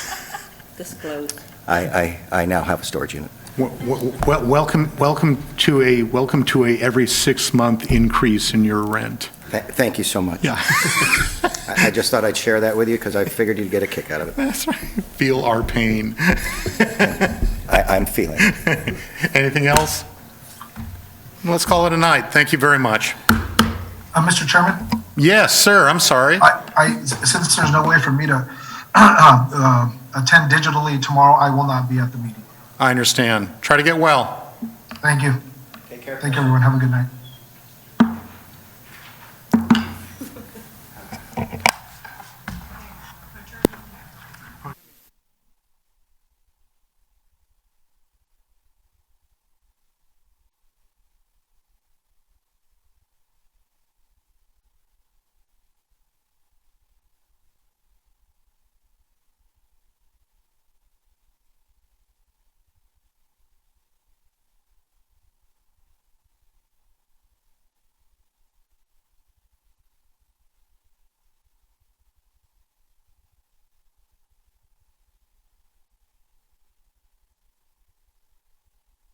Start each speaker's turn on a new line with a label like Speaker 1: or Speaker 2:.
Speaker 1: disclosed.
Speaker 2: I, I, I now have a storage unit.
Speaker 3: Wel- wel- Welcome, welcome to a, welcome to a every six-month increase in your rent.
Speaker 2: Th- Thank you so much.
Speaker 3: Yeah.
Speaker 2: I I just thought I'd share that with you because I figured you'd get a kick out of it.
Speaker 3: That's right. Feel our pain.
Speaker 2: I, I'm feeling. it.
Speaker 3: Anything else? Let's call it a night. Thank you very much.
Speaker 4: Uh, Mr. Chairman,
Speaker 3: Yes, sir, I'm sorry.
Speaker 4: I, I, since there's no way for me to uh, attend digitally tomorrow, I will not be at the meeting.
Speaker 3: I understand. Try to get well.
Speaker 4: Thank you. Take care. Thank you, everyone. Have a good night.